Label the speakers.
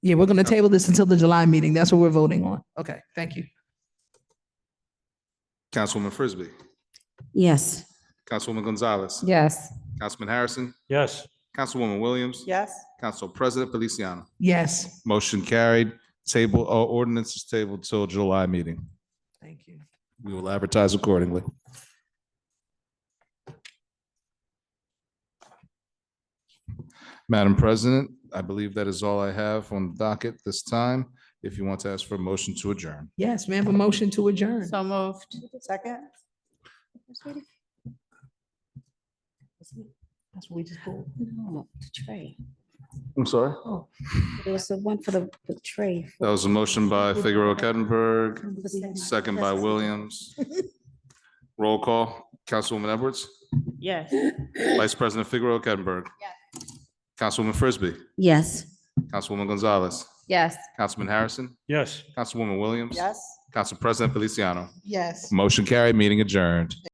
Speaker 1: Yeah, we're gonna table this until the July meeting. That's what we're voting on. Okay, thank you.
Speaker 2: Councilwoman Frisbee,
Speaker 3: Yes.
Speaker 2: Councilwoman Gonzalez,
Speaker 3: Yes.
Speaker 2: Councilman Harrison,
Speaker 4: Yes.
Speaker 2: Councilwoman Williams,
Speaker 5: Yes.
Speaker 2: Council President Feliciano.
Speaker 1: Yes,
Speaker 2: Motion carried. Table, all ordinances tabled till July meeting.
Speaker 1: thank you.
Speaker 2: We will advertise accordingly. Madam President, I believe that is all I have on the docket this time. If you want to ask for a motion to adjourn.
Speaker 1: Yes, may I have a motion to adjourn?
Speaker 3: So moved.
Speaker 5: Second?
Speaker 1: That's what we just pulled.
Speaker 3: No, the tray.
Speaker 2: I'm sorry?
Speaker 3: There was the one for the the tray.
Speaker 2: That was a motion by Figaro Kettenberg, second by Williams. Roll call, Councilwoman Edwards,
Speaker 5: Yes.
Speaker 2: Vice President Figaro Kettenberg. Councilwoman Frisbee,
Speaker 3: Yes.
Speaker 2: Councilwoman Gonzalez,
Speaker 3: Yes.
Speaker 2: Councilman Harrison,
Speaker 4: Yes.
Speaker 2: Councilwoman Williams.
Speaker 5: Yes.
Speaker 2: Council President Feliciano.
Speaker 5: Yes.
Speaker 2: Motion carried, meeting adjourned.